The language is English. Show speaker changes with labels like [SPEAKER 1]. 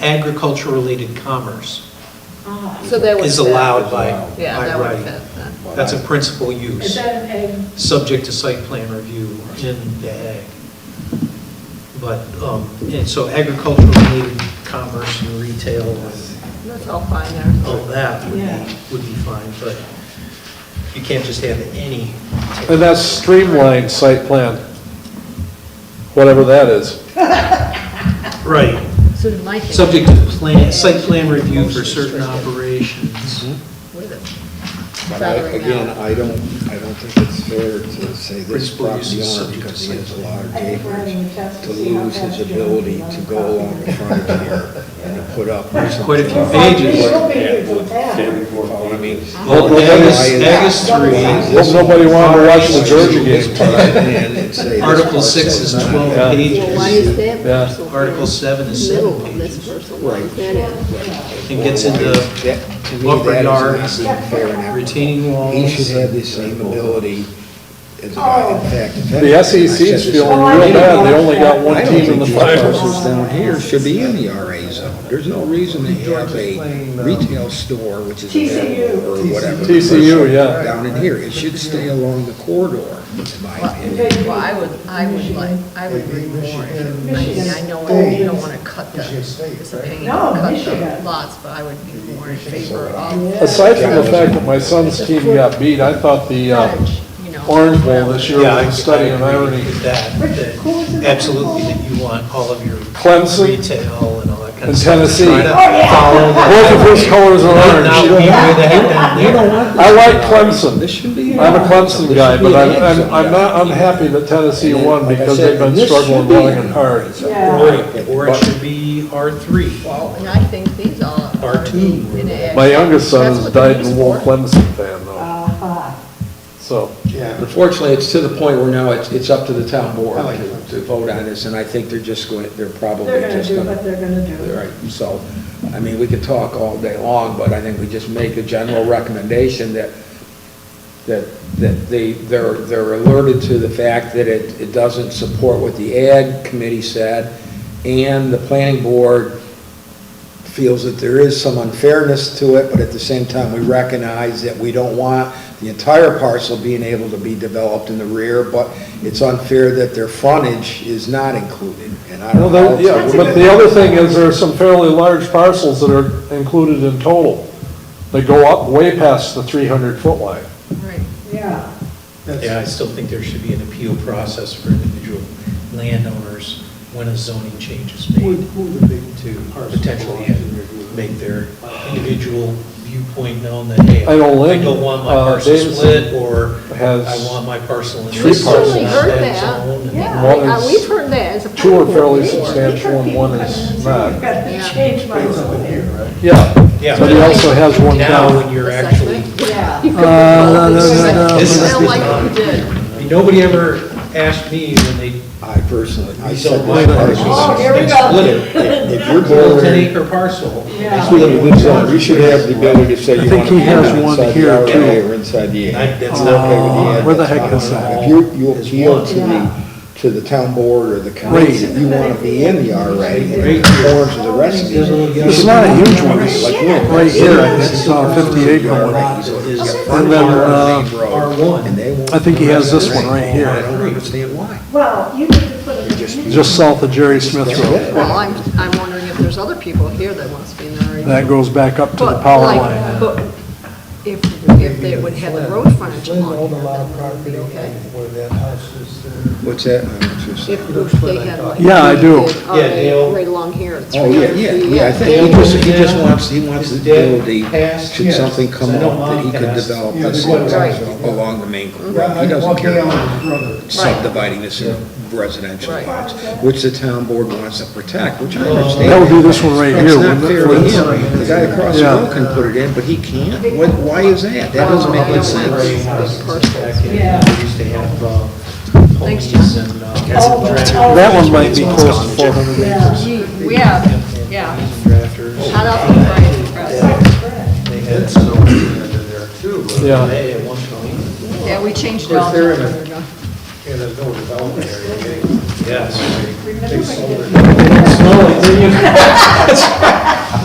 [SPEAKER 1] agriculture-related commerce
[SPEAKER 2] So that would
[SPEAKER 1] is
[SPEAKER 2] fit.
[SPEAKER 1] allowed by,
[SPEAKER 3] Allowed.
[SPEAKER 2] Yeah,
[SPEAKER 1] by
[SPEAKER 2] that would
[SPEAKER 1] right.
[SPEAKER 2] fit then.
[SPEAKER 1] That's a principal
[SPEAKER 4] Is
[SPEAKER 1] use,
[SPEAKER 4] that an egg?
[SPEAKER 1] subject to site plan review in the ag. But, um, and so agriculture-related commerce and retail and
[SPEAKER 2] That's all fine there.
[SPEAKER 1] all that would
[SPEAKER 4] Yeah.
[SPEAKER 1] be, would be fine, but you can't just have any.
[SPEAKER 3] And that's streamlined site plan, whatever that is.
[SPEAKER 1] Right.
[SPEAKER 2] So did Mike.
[SPEAKER 1] Subject to plan, site plan review for certain operations.
[SPEAKER 2] With it.
[SPEAKER 5] But I-
[SPEAKER 2] Salary now.
[SPEAKER 5] again, I don't, I don't think it's fair to say this
[SPEAKER 1] Principal
[SPEAKER 5] property
[SPEAKER 1] use is
[SPEAKER 5] owner,
[SPEAKER 1] subject
[SPEAKER 5] because
[SPEAKER 1] to
[SPEAKER 5] he has a
[SPEAKER 1] site
[SPEAKER 5] large
[SPEAKER 4] I think we're having a
[SPEAKER 5] acreage,
[SPEAKER 4] test
[SPEAKER 5] to
[SPEAKER 4] to see how
[SPEAKER 5] lose his
[SPEAKER 4] fast you
[SPEAKER 5] ability
[SPEAKER 4] run
[SPEAKER 5] to
[SPEAKER 4] the
[SPEAKER 5] go along the
[SPEAKER 4] property.
[SPEAKER 5] front here and to put up something.
[SPEAKER 1] Quite a few
[SPEAKER 4] Well,
[SPEAKER 1] pages.
[SPEAKER 4] She'll be here till ten.
[SPEAKER 5] I mean.
[SPEAKER 2] Uh-huh.
[SPEAKER 1] Well, ag is, ag is
[SPEAKER 3] Hope
[SPEAKER 1] three,
[SPEAKER 3] nobody wanted to watch the Georgia
[SPEAKER 5] Just put
[SPEAKER 3] game.
[SPEAKER 5] it in and say this
[SPEAKER 1] Article
[SPEAKER 5] part
[SPEAKER 1] six
[SPEAKER 5] says
[SPEAKER 1] is
[SPEAKER 5] none of
[SPEAKER 1] twelve
[SPEAKER 5] that.
[SPEAKER 2] Well, why
[SPEAKER 1] pages,
[SPEAKER 2] is that
[SPEAKER 3] Yeah.
[SPEAKER 2] parcel?
[SPEAKER 1] Article seven is seven
[SPEAKER 2] Middle of this
[SPEAKER 1] pages.
[SPEAKER 2] parcel, why is that in?
[SPEAKER 1] and gets into
[SPEAKER 5] That- to me,
[SPEAKER 1] upper
[SPEAKER 5] that is
[SPEAKER 1] yard,
[SPEAKER 5] not being fair and equitable.
[SPEAKER 1] retaining walls.
[SPEAKER 5] He should have the same ability as, a
[SPEAKER 4] Oh.
[SPEAKER 5] guy. in fact. if anything, I
[SPEAKER 3] The
[SPEAKER 5] said
[SPEAKER 3] SEC's
[SPEAKER 5] this-
[SPEAKER 3] feeling real bad, they only got one
[SPEAKER 5] I don't
[SPEAKER 3] team in
[SPEAKER 5] think
[SPEAKER 3] the
[SPEAKER 5] these
[SPEAKER 3] finals.
[SPEAKER 5] parcels down here should be in the RA zone. There's no reason to have a retail store, which is a
[SPEAKER 4] TCU.
[SPEAKER 5] or whatever.
[SPEAKER 3] TCU, yeah.
[SPEAKER 5] Down in here. It should stay along the corridor, in my opinion.
[SPEAKER 2] Well, I would, I would like, I would read more. I mean, I know you don't want to cut the, it's a pain to
[SPEAKER 4] No,
[SPEAKER 2] cut the
[SPEAKER 4] Michigan.
[SPEAKER 2] lots, but I would be more in favor of
[SPEAKER 3] Aside from the fact that my son's team got beat, I thought the uh,
[SPEAKER 2] cottage, you know.
[SPEAKER 3] Orange Bowl this year
[SPEAKER 1] Yeah, I
[SPEAKER 3] was a study in
[SPEAKER 1] agree
[SPEAKER 3] irony.
[SPEAKER 1] with That, that absolutely, that you want all of your
[SPEAKER 3] Clemson
[SPEAKER 1] retail and all that kind
[SPEAKER 3] and
[SPEAKER 1] of stuff.
[SPEAKER 3] Tennessee.
[SPEAKER 1] Try to
[SPEAKER 3] Oh,
[SPEAKER 1] follow that.
[SPEAKER 3] Both of his colors are
[SPEAKER 1] Not-
[SPEAKER 3] orange.
[SPEAKER 1] not
[SPEAKER 3] You
[SPEAKER 1] be where
[SPEAKER 3] don't
[SPEAKER 1] they
[SPEAKER 3] have-
[SPEAKER 1] have down there.
[SPEAKER 3] I like Clemson.
[SPEAKER 5] This should be.
[SPEAKER 3] I'm a Clemson guy, but
[SPEAKER 5] This
[SPEAKER 3] I'm,
[SPEAKER 5] should be an
[SPEAKER 3] I'm, I'm not unhappy that Tennessee
[SPEAKER 5] And then,
[SPEAKER 3] won
[SPEAKER 5] like I
[SPEAKER 3] because
[SPEAKER 5] said,
[SPEAKER 3] they've been
[SPEAKER 5] this should
[SPEAKER 3] struggling
[SPEAKER 5] be
[SPEAKER 3] long
[SPEAKER 5] an
[SPEAKER 3] and hard.
[SPEAKER 4] Yeah.
[SPEAKER 1] Or it should be R three.
[SPEAKER 2] Well, and I think these all
[SPEAKER 1] Or
[SPEAKER 2] are
[SPEAKER 1] two.
[SPEAKER 2] in in ag.
[SPEAKER 3] My youngest son
[SPEAKER 2] That's
[SPEAKER 3] has
[SPEAKER 2] what they're
[SPEAKER 3] died in a
[SPEAKER 2] used
[SPEAKER 3] war
[SPEAKER 2] for.
[SPEAKER 3] Clemson fan though,
[SPEAKER 4] Uh-huh.
[SPEAKER 3] so.
[SPEAKER 6] Yeah, unfortunately, it's to the point where now it's, it's up to the town board
[SPEAKER 5] I like
[SPEAKER 6] to,
[SPEAKER 5] that.
[SPEAKER 6] to vote on this, and I think they're just going, they're probably
[SPEAKER 4] They're gonna
[SPEAKER 6] just
[SPEAKER 4] do
[SPEAKER 6] gonna.
[SPEAKER 4] what they're gonna do.
[SPEAKER 6] Right, so, I mean, we could talk all day long, but I think we just make a general recommendation that, that, that they, they're, they're alerted to the fact that it, it doesn't support what the ad committee said, and the planning board feels that there is some unfairness to it, but at the same time, we recognize that we don't want the entire parcel being able to be developed in the rear, but it's unfair that their frontage is not included, and I
[SPEAKER 3] Well,
[SPEAKER 6] don't know.
[SPEAKER 3] there- yeah, but the other thing is there are some fairly large parcels that are included in total. They go up way past the three hundred foot line.
[SPEAKER 2] Right.
[SPEAKER 4] Yeah.
[SPEAKER 1] Yeah, I still think there should be an appeal process for individual landowners when a zoning change is made to potentially make their individual viewpoint known that, hey,
[SPEAKER 3] I don't live,
[SPEAKER 1] I don't want my
[SPEAKER 3] uh,
[SPEAKER 1] parcel
[SPEAKER 3] Davidson
[SPEAKER 1] split, or
[SPEAKER 3] has
[SPEAKER 1] I want my parcel in
[SPEAKER 3] three
[SPEAKER 1] this
[SPEAKER 3] parcels.
[SPEAKER 1] zone,
[SPEAKER 3] We've
[SPEAKER 2] certainly heard
[SPEAKER 1] that
[SPEAKER 2] that.
[SPEAKER 1] zone, and-
[SPEAKER 4] Yeah.
[SPEAKER 3] One
[SPEAKER 2] Uh,
[SPEAKER 3] is-
[SPEAKER 2] We've heard that as a.
[SPEAKER 3] Two are fairly
[SPEAKER 2] problem.
[SPEAKER 3] substantial and one is
[SPEAKER 4] I've
[SPEAKER 3] not.
[SPEAKER 4] got to change my zone here.
[SPEAKER 3] Yeah,
[SPEAKER 1] Yeah.
[SPEAKER 3] but he also has one
[SPEAKER 1] Now,
[SPEAKER 3] down. Uh,
[SPEAKER 1] when you're
[SPEAKER 2] Assessment.
[SPEAKER 1] actually,
[SPEAKER 4] Yeah.
[SPEAKER 2] You could propose it, but
[SPEAKER 1] This is-
[SPEAKER 2] I don't like what you did.
[SPEAKER 1] nobody ever asked me when they
[SPEAKER 5] I personally, I
[SPEAKER 1] These
[SPEAKER 5] said
[SPEAKER 1] are
[SPEAKER 5] this
[SPEAKER 1] my
[SPEAKER 4] Oh,
[SPEAKER 5] parcel.
[SPEAKER 4] here we go.
[SPEAKER 1] split it,
[SPEAKER 5] If you're
[SPEAKER 1] a ten
[SPEAKER 5] bothered,
[SPEAKER 1] acre parcel.
[SPEAKER 4] Yeah.
[SPEAKER 5] split it in zone, you should have the ability to say
[SPEAKER 3] I
[SPEAKER 5] you
[SPEAKER 3] think
[SPEAKER 5] want
[SPEAKER 3] he
[SPEAKER 5] to be
[SPEAKER 3] has one
[SPEAKER 5] inside the
[SPEAKER 3] here,
[SPEAKER 5] RA
[SPEAKER 3] too.
[SPEAKER 5] or inside the A.
[SPEAKER 1] I- that's
[SPEAKER 5] I'm
[SPEAKER 1] not-
[SPEAKER 3] Uh,
[SPEAKER 5] okay with the A,
[SPEAKER 3] Where the
[SPEAKER 5] that's
[SPEAKER 3] heck
[SPEAKER 5] fine.
[SPEAKER 3] is that?
[SPEAKER 5] If you, you
[SPEAKER 1] Is
[SPEAKER 5] appeal
[SPEAKER 1] one.
[SPEAKER 5] to the, to the town board or the
[SPEAKER 3] Right.
[SPEAKER 5] committee, that you want to be in the RA and it conforms to the rest of the.
[SPEAKER 3] It's not a huge one, it's
[SPEAKER 5] Like, look,
[SPEAKER 3] right here, I think it's a fifty acre one. And
[SPEAKER 5] And
[SPEAKER 3] then, uh,
[SPEAKER 5] I
[SPEAKER 3] I think he has this one right here.
[SPEAKER 5] I don't understand why.
[SPEAKER 4] Well, you need to put it.
[SPEAKER 5] just-
[SPEAKER 3] just south of Jerry Smith Road.
[SPEAKER 2] Well, I'm, I'm wondering if there's other people here that wants to be in the RA.
[SPEAKER 3] That goes back up to the
[SPEAKER 2] But,
[SPEAKER 3] power
[SPEAKER 2] like,
[SPEAKER 3] line.
[SPEAKER 2] But if, if they would have the road frontage along here, then it would be okay.
[SPEAKER 5] What's that? I'm not sure.
[SPEAKER 2] If they had like.
[SPEAKER 3] Yeah, I do.
[SPEAKER 2] did
[SPEAKER 1] Yeah, Dale.
[SPEAKER 2] RA Right along here.
[SPEAKER 5] Oh, yeah, yeah, yeah, I think he just, he just wants, he wants the ability, should something come up, that he could develop this along the main corridor. He doesn't care about subdividing this in residential
[SPEAKER 2] Right.
[SPEAKER 5] lots, which the town board wants to protect, which I understand.
[SPEAKER 3] That would be this one right here,
[SPEAKER 5] It's not
[SPEAKER 3] wouldn't
[SPEAKER 5] fair
[SPEAKER 3] it?
[SPEAKER 5] to
[SPEAKER 3] Wouldn't it?
[SPEAKER 5] him, the guy across the
[SPEAKER 3] Yeah.
[SPEAKER 5] road can put it in, but he can't, what, why is that? That doesn't make any sense. uh,
[SPEAKER 2] Thanks,
[SPEAKER 3] That one might be close to four hundred
[SPEAKER 4] Yeah.
[SPEAKER 2] We have, yeah. Hot off the press.
[SPEAKER 1] They had snow under there too,
[SPEAKER 3] Yeah.
[SPEAKER 1] but they at one point.
[SPEAKER 2] Yeah, we changed it all.
[SPEAKER 1] Of course, they're in a-
[SPEAKER 2] There
[SPEAKER 1] Yeah,
[SPEAKER 2] we go.
[SPEAKER 1] there's no development area. Yes.
[SPEAKER 4] Remember when you-
[SPEAKER 3] It's not like-